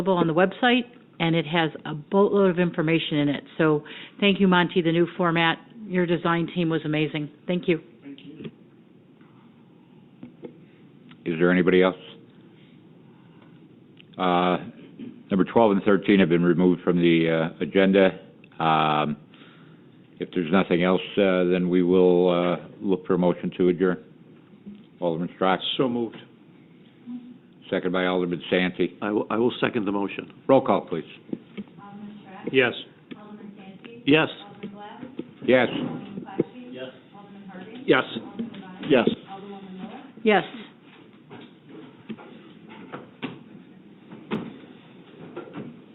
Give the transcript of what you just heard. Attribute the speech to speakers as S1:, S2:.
S1: available on the website, and it has a boatload of information in it. So thank you, Monty, the new format. Your design team was amazing. Thank you.
S2: Is there anybody else? Uh, Number 12 and 13 have been removed from the uh, agenda. Um, If there's nothing else, uh, then we will uh, look for a motion to adjourn. Alderman Strack,
S3: So moved.
S2: second by Alderman Santee.
S3: I will, I will second the motion.
S2: Roll call, please.
S3: Yes. Yes.
S2: Yes.
S3: Yes. Yes.
S1: Yes.